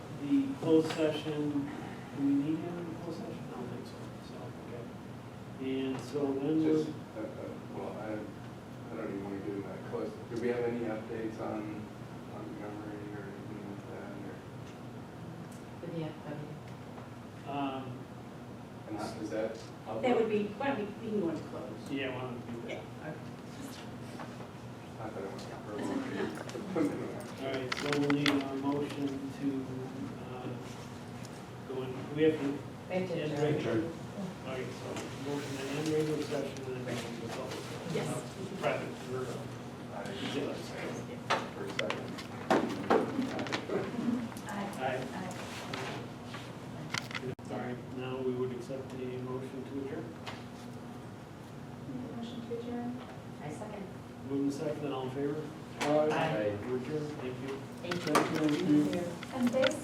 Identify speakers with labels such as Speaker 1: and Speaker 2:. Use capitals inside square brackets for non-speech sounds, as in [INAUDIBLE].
Speaker 1: closed session, do we need him in closed session? I don't think so, so, okay. And so when was,
Speaker 2: Just, uh, uh, well, I, I don't even want to get in that close. Do we have any updates on Montgomery or anything like that? or-
Speaker 3: With the FW.
Speaker 1: um,
Speaker 2: And how- is that? public?
Speaker 4: That would be, why don't we, we can go into close.
Speaker 1: yeah, why don't we do
Speaker 2: I thought it was verbal. [LAUGHS]
Speaker 1: that? All right, so we'll need a motion to, uh, go in, we have to
Speaker 3: They did
Speaker 1: Yeah,
Speaker 3: adjourn.
Speaker 1: adjourn. All right, so motion to end regular session and then go into public.
Speaker 4: Yes.
Speaker 1: Private, we're, uh, jealous.
Speaker 2: For a second.
Speaker 1: Aye. Sorry, now we would accept the motion to adjourn.
Speaker 4: Motion to adjourn?
Speaker 3: I second.
Speaker 1: Moving second, all in favor?
Speaker 2: Aye.
Speaker 1: We're adjourned, thank you.
Speaker 3: Thank you.
Speaker 1: Thank you.
Speaker 4: And this